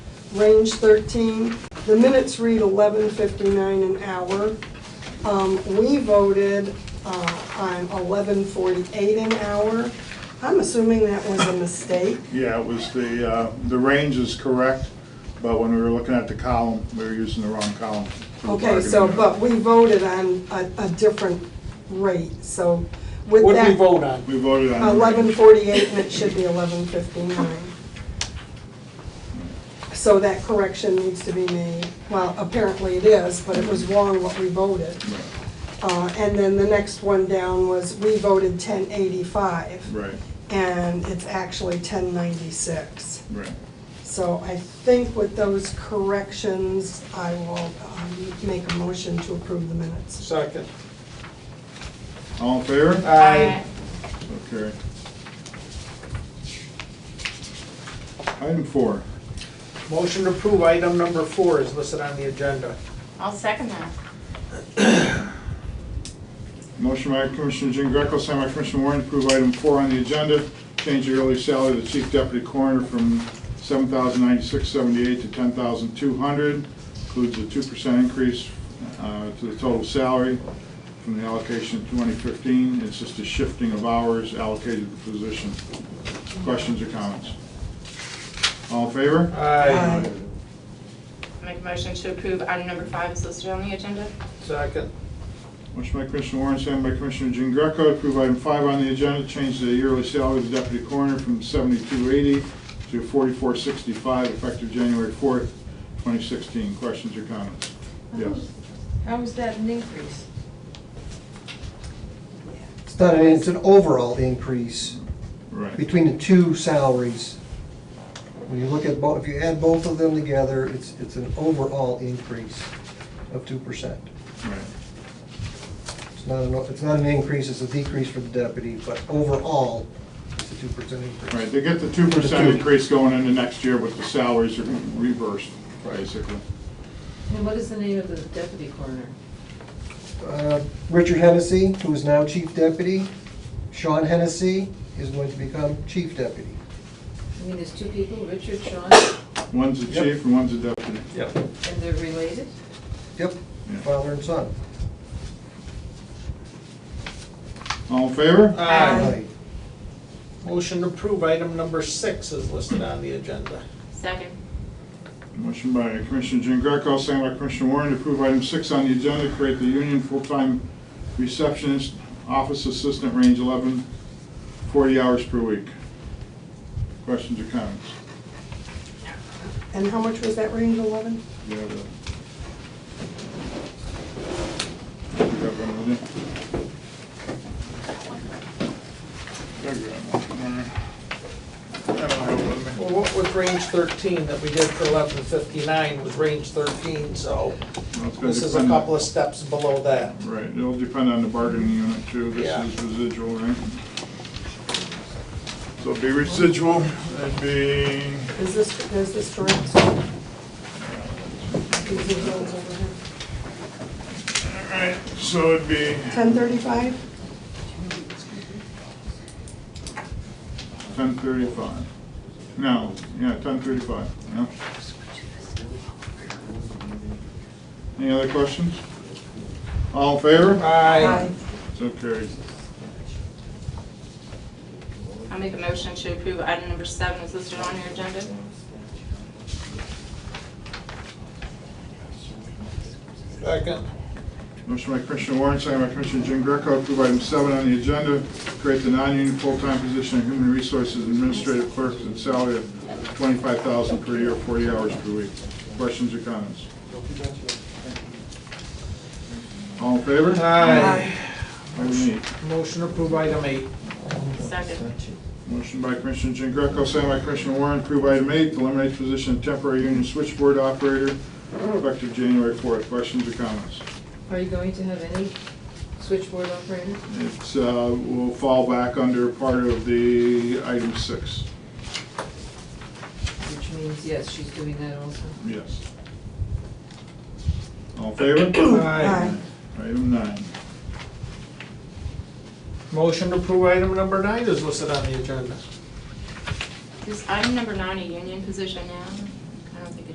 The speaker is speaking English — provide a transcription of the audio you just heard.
range 13. The minutes read 11:59 an hour. Um, We voted uh, on 11:48 an hour. I'm assuming that was a mistake. Yeah, it was the, uh, the range is correct, but when we were looking at the column, we were using the wrong column. for the Okay, so, bargaining but unit. we voted on a a different rate, so with What did we that, vote on? We voted on. the range. 11:48 and it should be 11:59. So that correction needs to be made. Well, apparently it is, but it was wrong what we voted. Uh, And then the next one down was, we voted 1085, Right, and it's actually 1096. right. So I think with those corrections, I will um, make a motion to approve the minutes. Second. All in favor? Aye. Okay. Item four, Motion to approve item number four is listed on the agenda. I'll second that. motion by Commissioner Jean Greco, signed by Commissioner Warren, to approve item four on the agenda, change the early salary of the chief deputy coroner from seven thousand ninety-six seventy-eight to ten thousand two hundred, includes a two percent increase uh, to the total salary from the allocation in twenty fifteen. It's just a shifting of hours allocated to the position. Questions or comments? All in favor? Aye. Aye. I Make a motion to approve item number five is listed on the agenda. Second. Motion by Commissioner Warren, second by Commissioner Jean Greco, to approve item five on the agenda, change the yearly salary of the deputy coroner from seventy-two eighty to forty-four sixty-five, effective January fourth, twenty sixteen. Questions or comments? Yes. How is that an increase? It's not, an- it's an overall increase Right. between the two salaries. When you look at both, if you add both of them together, it's, it's an overall increase of two percent. Right. It's not, an it's not an increase, it's a decrease for the deputy, but overall, it's a two percent increase. Right, they get the two percent increase going into next year, but the salaries are reversed, basically. And what is the name of the deputy coroner? Uh, Richard Hennessy, who is now chief deputy, Sean Hennessy is going to become chief deputy. I mean, there's two people, Richard, Sean, One's the Yep. chief and one's the deputy. Yep. and they're related? Yep, Yeah. father and son. All in favor? Aye. Right. Motion to approve item number six is listed on the agenda. Second. Motion by Commissioner Jean Greco, second by Commissioner Warren, to approve item six on the agenda, create the union full-time receptionist, office assistant, range 11, 40 hours per week. Questions or comments? And how much was that range, 11? Do you have a- Do you have one with you? I got one. I don't have one with me. Well, what was range thirteen that we did for eleven fifty-nine was range thirteen, so Well, it's gonna this is a depend on- couple of steps below that. Right, it'll depend on the bargaining unit too, this Yeah. is residual, right? So it'd be residual, that'd be, Is this, is this correct? These are the ones over here. alright, so it'd be 1035? ten thirty-five. No, yeah, ten thirty-five, yeah. Any other questions? All in favor? Aye. So carried. I make a motion to approve item number seven is listed on your agenda. Second. Motion by Commissioner Warren, second by Commissioner Jean Greco, approve item seven on the agenda, create the non-union full-time position of human resources administrative clerk at a salary of twenty-five thousand per year, forty hours per week. Questions or comments? All in favor? Aye. Item eight. Motion to approve item eight. Second. Motion by Commissioner Jean Greco, second by Commissioner Warren, approve item eight, eliminate position of temporary union switchboard operator effective January fourth. Questions or comments? Are you going to have any switchboard operators? It uh, will fall back under part of the item six. Which means, yes, she's doing that also. Yes. All in favor? Aye. Item nine. Motion to approve item number nine is listed on the agenda. Is item number nine a union position now?